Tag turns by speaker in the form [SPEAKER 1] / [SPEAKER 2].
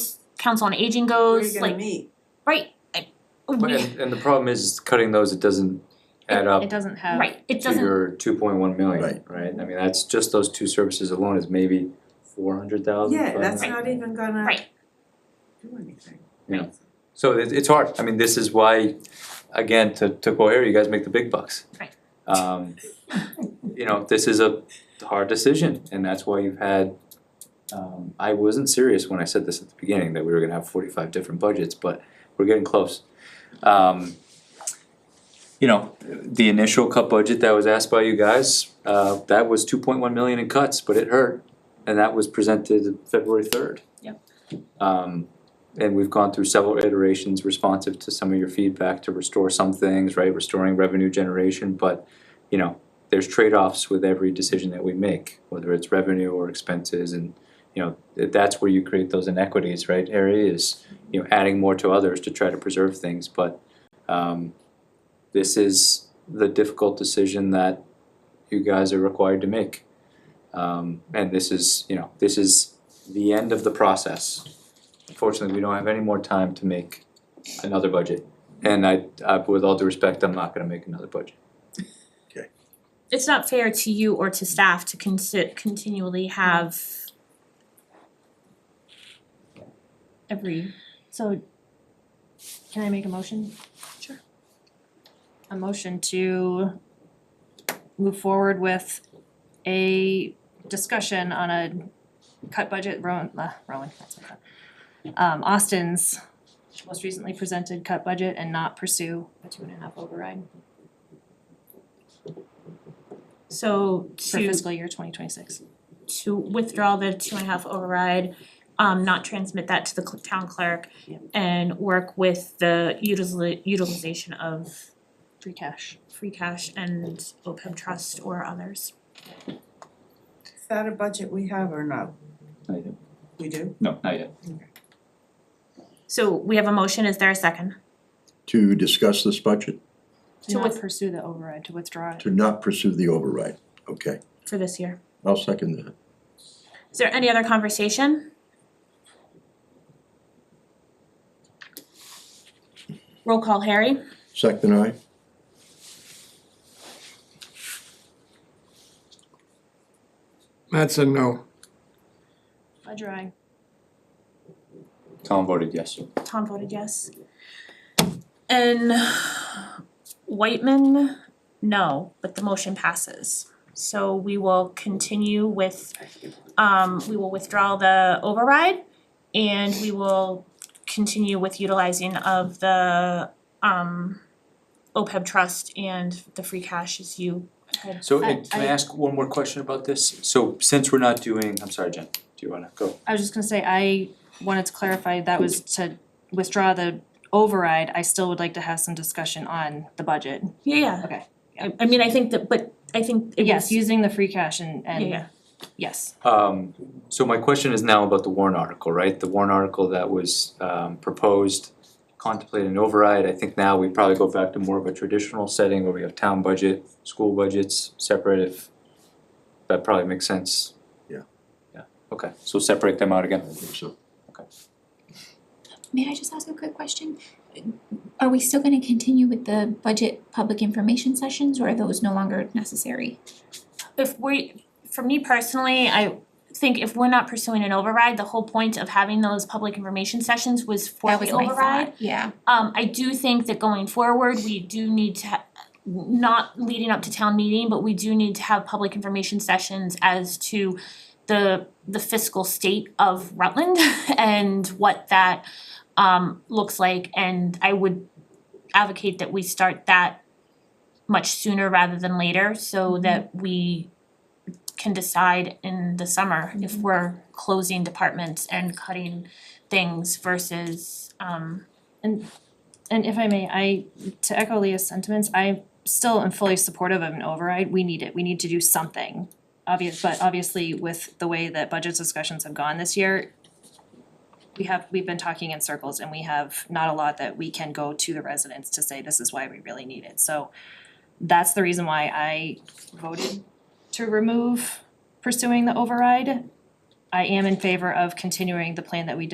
[SPEAKER 1] council on aging
[SPEAKER 2] Where are
[SPEAKER 1] goes,
[SPEAKER 2] you gonna
[SPEAKER 1] like,
[SPEAKER 2] meet?
[SPEAKER 1] right, like,
[SPEAKER 3] But
[SPEAKER 1] we,
[SPEAKER 3] and and the problem is cutting those, it doesn't add
[SPEAKER 4] It
[SPEAKER 3] up
[SPEAKER 4] doesn't have.
[SPEAKER 1] right, it
[SPEAKER 3] to
[SPEAKER 1] doesn't,
[SPEAKER 3] your two point one million, right?
[SPEAKER 5] Right.
[SPEAKER 3] I mean, that's just those two services alone is maybe four hundred thousand.
[SPEAKER 2] Yeah, that's not even gonna
[SPEAKER 1] Right.
[SPEAKER 2] do anything.
[SPEAKER 3] So it it's hard, I mean, this is why, again, to to go area, you guys make the big bucks.
[SPEAKER 1] Right.
[SPEAKER 3] Um, you know, this is a hard decision and that's why you've had, um, I wasn't serious when I said this at the beginning, that we were gonna have forty five different budgets, but we're getting close. Um, you know, the initial cut budget that was asked by you guys, uh, that was two point one million in cuts, but it hurt. And that was presented February third.
[SPEAKER 1] Yep.
[SPEAKER 3] Um, and we've gone through several iterations responsive to some of your feedback to restore some things, right, restoring revenue generation, but, you know, there's trade-offs with every decision that we make, whether it's revenue or expenses, and, you know, th- that's where you create those inequities, right, Harry, is, you know, adding more to others to try to preserve things, but, um, this is the difficult decision that you guys are required to make. Um, and this is, you know, this is the end of the process, unfortunately, we don't have any more time to make another budget. And I, I, with all due respect, I'm not gonna make another budget.
[SPEAKER 1] it's not fair to you or to staff to consi- continually have every,
[SPEAKER 4] So, can I make a motion?
[SPEAKER 1] Sure.
[SPEAKER 4] A motion to move forward with a discussion on a cut budget, Rowan, uh, Rowan, that's what I thought. Um, Austin's most recently presented cut budget and not pursue a two and a half override
[SPEAKER 1] so
[SPEAKER 4] for
[SPEAKER 1] to
[SPEAKER 4] fiscal year twenty twenty-six.
[SPEAKER 1] to withdraw the two and a half override, um not transmit that to the cl- town clerk
[SPEAKER 4] Yeah.
[SPEAKER 1] and work with the utiliza- utilization of
[SPEAKER 4] Free cash.
[SPEAKER 1] free cash and OPEB trust or others.
[SPEAKER 2] Is that a budget we have or no?
[SPEAKER 3] Not yet.
[SPEAKER 2] We do?
[SPEAKER 3] No, not yet.
[SPEAKER 1] So we have a motion, is there a second?
[SPEAKER 5] to discuss this budget,
[SPEAKER 4] To
[SPEAKER 1] To
[SPEAKER 4] not
[SPEAKER 1] with-
[SPEAKER 4] pursue the override, to withdraw it.
[SPEAKER 5] to not pursue the override. Okay,
[SPEAKER 1] For this year.
[SPEAKER 5] I'll second that.
[SPEAKER 1] Is there any other conversation? Roll call, Harry?
[SPEAKER 5] Second, I,
[SPEAKER 6] That's a no.
[SPEAKER 4] Ledger I.
[SPEAKER 3] Tom voted yes.
[SPEAKER 1] Tom voted yes. And Whitman, no, but the motion passes. So we will continue with, um, we will withdraw the override and we will continue with utilizing of the, um, OPEB trust and the free cash as you had.
[SPEAKER 3] So,
[SPEAKER 4] I-
[SPEAKER 3] and can I
[SPEAKER 4] I-
[SPEAKER 3] ask one more question about this? So since we're not doing, I'm sorry, Jen, do you wanna go?
[SPEAKER 4] I was just gonna say, I wanted to clarify, that was to withdraw the override, I still would like to have some discussion on the budget.
[SPEAKER 1] Yeah, yeah.
[SPEAKER 4] Okay.
[SPEAKER 1] I, I mean, I think that, but I think it
[SPEAKER 4] Yes,
[SPEAKER 1] was, yeah,
[SPEAKER 4] using the free cash and,
[SPEAKER 1] yeah,
[SPEAKER 4] and, yes,
[SPEAKER 3] Um, so my question is now about the Warren article, right? The Warren article that was, um, proposed, contemplated an override. I think now we probably go back to more of a traditional setting where we have town budget, school budgets separate if that probably makes sense.
[SPEAKER 5] Yeah.
[SPEAKER 3] Yeah, okay, so separate them out again.
[SPEAKER 5] I think so.
[SPEAKER 7] May I just ask a quick question? Are we still gonna continue with the budget public information sessions or are those no longer necessary?
[SPEAKER 1] if we, for me personally, I think if we're not pursuing an override, the whole point of having those public information sessions was for
[SPEAKER 7] That
[SPEAKER 1] the
[SPEAKER 7] was my
[SPEAKER 1] override.
[SPEAKER 7] thought, yeah.
[SPEAKER 1] Um, I do think that going forward, we do need to, ha- not leading up to town meeting, but we do need to have public information sessions as to the, the fiscal state of Rutland and what that, um, looks like. And I would advocate that we start that much sooner rather than later so that we can decide in the summer if we're closing departments and cutting things versus, um,
[SPEAKER 4] and if I may, I, to echo Leah's sentiments, I still am fully supportive of an override, we need it, we need to do something. Obvious, but obviously with the way that budget discussions have gone this year, we have, we've been talking in circles and we have not a lot that we can go to the residents to say, this is why we really need it, so that's the reason why I voted to remove pursuing the override. I am in favor of continuing the plan that we